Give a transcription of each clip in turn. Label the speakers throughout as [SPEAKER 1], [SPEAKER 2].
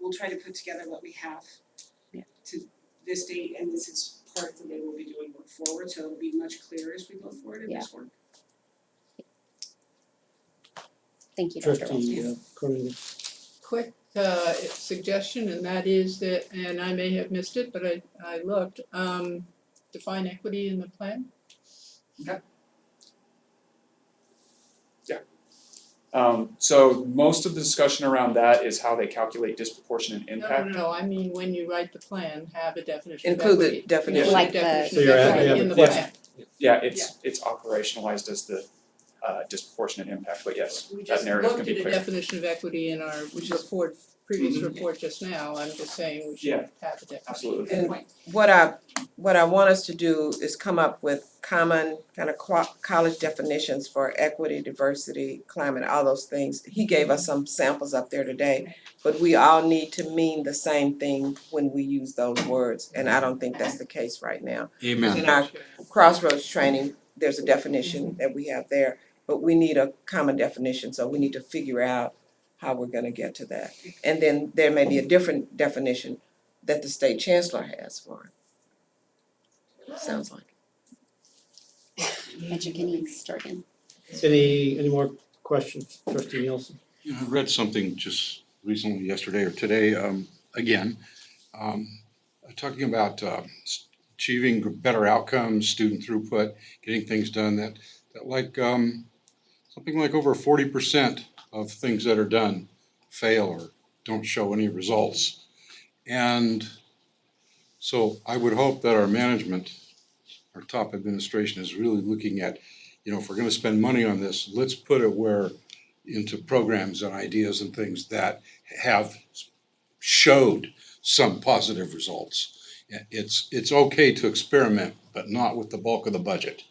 [SPEAKER 1] we'll try to put together what we have
[SPEAKER 2] Yeah.
[SPEAKER 1] to this date, and this is part of the way we'll be doing work forward, so it'll be much clearer as we go forward in this work.
[SPEAKER 2] Thank you, Dr. Walters.
[SPEAKER 3] Trustee uh, Corrigan.
[SPEAKER 4] quick uh suggestion and that is that, and I may have missed it, but I I looked, um define equity in the plan.
[SPEAKER 5] Um, so most of the discussion around that is how they calculate disproportionate
[SPEAKER 4] No,
[SPEAKER 5] impact.
[SPEAKER 4] no, no, I mean, when you write the plan, have a definition of
[SPEAKER 6] Include the
[SPEAKER 4] equity.
[SPEAKER 6] definition.
[SPEAKER 4] Include
[SPEAKER 2] Like the-
[SPEAKER 4] definition
[SPEAKER 3] So
[SPEAKER 4] of
[SPEAKER 3] you're at-
[SPEAKER 4] equity
[SPEAKER 3] yeah,
[SPEAKER 4] in the
[SPEAKER 3] but-
[SPEAKER 4] plan.
[SPEAKER 5] Yeah, it's it's operationalized as the uh disproportionate impact, but yes,
[SPEAKER 4] We
[SPEAKER 5] that
[SPEAKER 4] just
[SPEAKER 5] narrative
[SPEAKER 4] looked
[SPEAKER 5] can
[SPEAKER 4] at
[SPEAKER 5] be
[SPEAKER 4] a
[SPEAKER 5] clear.
[SPEAKER 4] definition of equity in our, which is Ford, previous
[SPEAKER 5] Mhm.
[SPEAKER 4] report just now, I'm just saying we should
[SPEAKER 5] Yeah.
[SPEAKER 4] have a definition.
[SPEAKER 5] Absolutely.
[SPEAKER 6] And what I, what I want us to do is come up with common kind of qua- college definitions for equity, diversity, climate, all those things. He gave us some samples up there today, but we all need to mean the same thing when we use those words, and I don't think that's the case right now.
[SPEAKER 7] Amen.
[SPEAKER 6] In our crossroads training, there's a definition that we have there, but we need a common definition, so we need to figure out how we're gonna get to that. And then there may be a different definition that the state chancellor has for it. Sounds like.
[SPEAKER 2] Bet you can eat Sturgeon.
[SPEAKER 3] Any, any more questions, trustee Nielsen?
[SPEAKER 7] You know, I read something just recently, yesterday or today, um, again, um, talking about, uh, s- achieving better outcomes, student throughput, getting things done, that, that like, um, something like over forty percent of things that are done fail or don't show any results. And so I would hope that our management, our top administration is really looking at, you know, if we're gonna spend money on this, let's put it where into programs and ideas and things that have showed some positive results. It's, it's okay to experiment, but not with the bulk of the budget.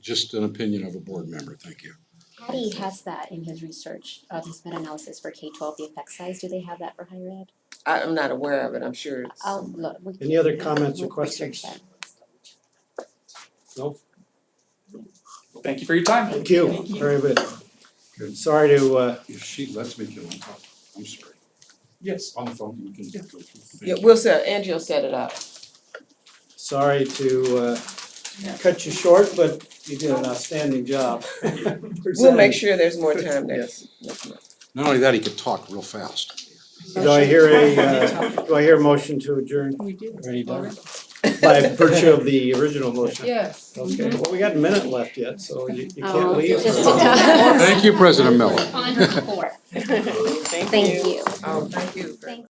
[SPEAKER 7] Just an opinion of a board member, thank you.
[SPEAKER 2] Patty has that in his research of his meta-analysis for K twelve, the effect size. Do they have that for higher ed?
[SPEAKER 6] I am not aware of it, I'm sure it's.
[SPEAKER 2] I'll Oh, look. we-
[SPEAKER 3] Any other comments or
[SPEAKER 2] we'll research
[SPEAKER 3] questions?
[SPEAKER 2] that.
[SPEAKER 3] No?
[SPEAKER 5] Thank you for your time.
[SPEAKER 3] Thank you, very good. Sorry to, uh,
[SPEAKER 7] If she lets me get on top, I'm sorry,
[SPEAKER 5] Yes.
[SPEAKER 7] on the phone, you can go through.
[SPEAKER 6] Yeah, we'll set, Angie will set it up.
[SPEAKER 3] sorry to, uh, cut you short, but you did an outstanding job.
[SPEAKER 6] We'll
[SPEAKER 3] presenting.
[SPEAKER 6] make sure there's more time next, next month.
[SPEAKER 7] Not only that, he could talk real fast.
[SPEAKER 3] Do I hear a, uh, do I hear a motion to adjourn
[SPEAKER 4] We did.
[SPEAKER 3] Already done.
[SPEAKER 4] Already.
[SPEAKER 3] by virtue of the original motion?
[SPEAKER 4] Yes.
[SPEAKER 3] Okay, well, we got a minute left yet, so you, you can't
[SPEAKER 2] Oh,
[SPEAKER 3] leave.
[SPEAKER 2] just-
[SPEAKER 7] Thank you, President Miller.
[SPEAKER 2] On her floor. Thank you.
[SPEAKER 6] Oh, thank you very
[SPEAKER 2] Thank